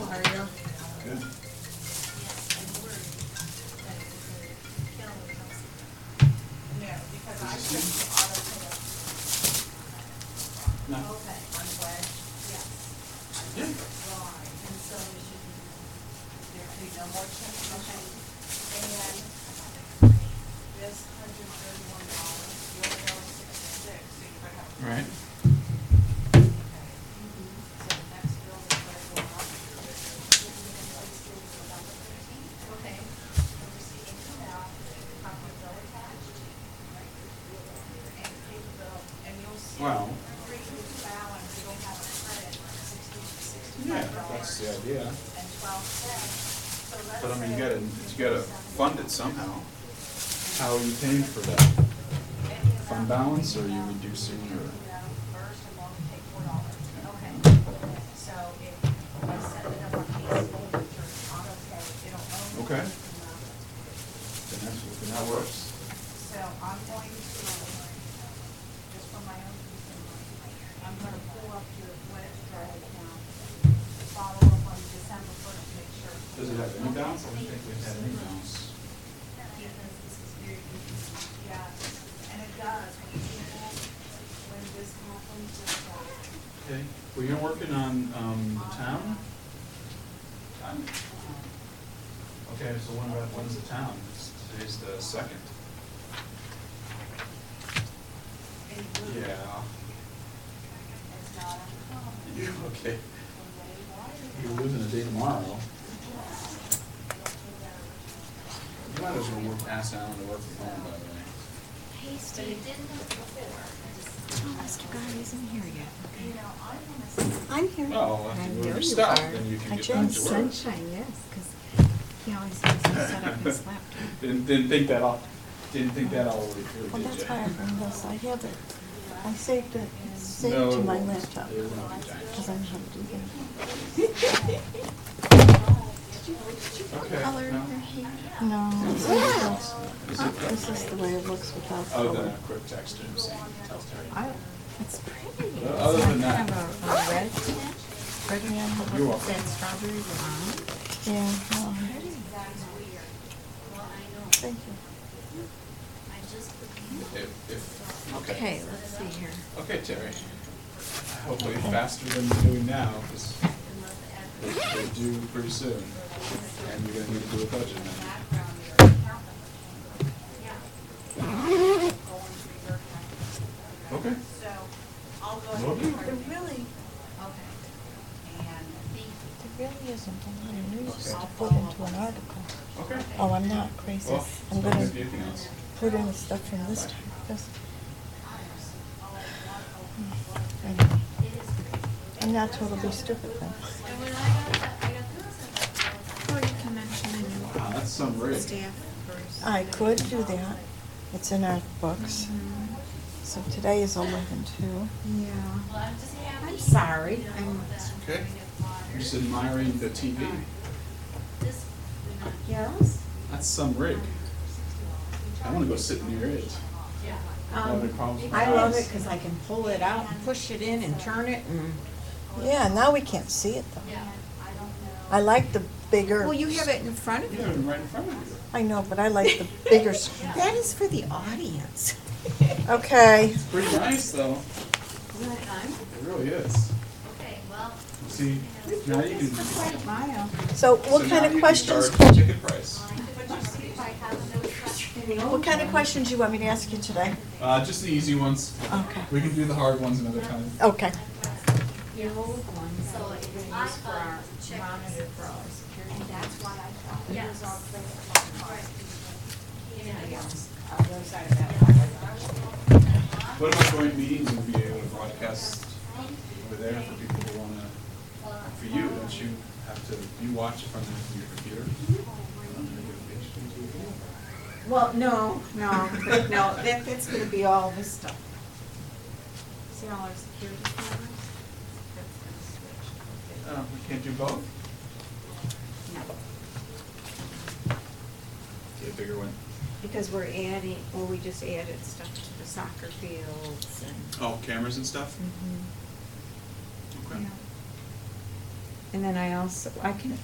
our motion, motion. And this hundred thirty-one dollars, you only owe sixty-six, so you're gonna have. to- Right. Okay. So the next bill is gonna go up. Okay. We're receiving now, copy of bill attached, right? And pay the bill, and you'll see. Well- Free balance, you'll have a credit of sixty, Yeah, sixty-five dollars. that's the idea. and twelve cents. So let's But I mean, you say- gotta, you gotta fund it somehow. How are you paying for that? Any amount Fund balance, or you between now- reducing between your? now First, and we'll take four dollars. Okay. So if I set it up on case hold it through auto pay, it'll only. Okay. be amount. Then that's, then that works. So I'm going to, just for my own, peace of mind, I'm gonna pull up your, what it's called now, follow up on December first, make sure. Does it have any bounds? I don't think we've had any bounds. Because this is very confusing. Yeah, and it does, when people, when this happens, it's like. Okay, well, you're working on, um, the town? Town? Okay, so when, when's the town? Today's the second. It will. It's not uncommon. You, okay. When they wire it. You're losing a day tomorrow. It'll take that original. You might as well work, ask Alan to work from home, by the way. Hey, Steve, didn't look before. Oh, Mr. Garner isn't here yet. You know, I wanna see. I'm here. Oh, Well, after I you move know your you stuff, are. then you can I get show back him to work. Sunshine, yes, because he always has to set up his laptop. Didn't, didn't think that all, didn't think that all the way through, Well, did that's ya? why I bring this, I have it, I saved it, saved No, to it my won't. laptop, It will not be done. because I'm gonna do Okay, no. that. No, this is just- Is it the- this is the way it looks without Oh, the color. quick text and see, tell Terry. I- It's pretty. Uh, other It's like than that- Kind of a- a red, red and You're yellow, welcome. that strawberry lime. Yeah, no, That's weird. Well, I know, thank you. I just looking. If, if, okay. Okay, let's see here. Okay, Terry. Hopefully faster than you're doing now, because they do pretty soon. And you're gonna need to do a budget amendment. Background, your accountant. Going to your account. Okay. So, I'll go ahead. Lovely. and print it. really, Okay. And there really isn't a lot of news Okay. to put into an article. Okay. Oh, I'm not crazy, Well, I'm it's not gonna gonna be anything else. put in the stuff from this time, because, I'm not totally stupid then. And when I got the, I got the, Or you can mention a Wow, that's some rig. staff person. I could do that, it's in our books, so today is eleven two. Yeah. well, I'm just happy. I'm sorry, I'm, Okay. I'm just admiring the TV. This would not yes? That's some rig. I wanna go sit near it. Having Um, problems with my I love eyes. it because I can pull it out and push it in and turn it and. Yeah, now we can't see it though. I like the bigger. Well, you have it in front of You you. have it right in front of you. I know, but I like the bigger. sc- That is for the audience. Okay. It's pretty nice, though. It really is. Okay, well, See, now you can. So, so what now kind you of can questions? charge Ticket price. What kind of questions you want me to ask you today? Uh, just the easy ones. Okay. We can do the hard ones another time. Okay. Your old one, so it's, I thought, check this. and that's why I thought it was Yes. all clear on my part. Yeah, yeah. On the other side of that. What about joint meetings and be able to broadcast over there for people who wanna, for you, don't you have to, you watch it from the- your computer? Well, no, no, no, that, that's gonna be all this stuff. See all our security cameras? That's gonna switch. Uh, we can't do both? No, Get a bigger one. because we're adding, well, we just added stuff to the soccer fields and. Oh, cameras and stuff? Mhm. Okay. Yeah. And then I also, I can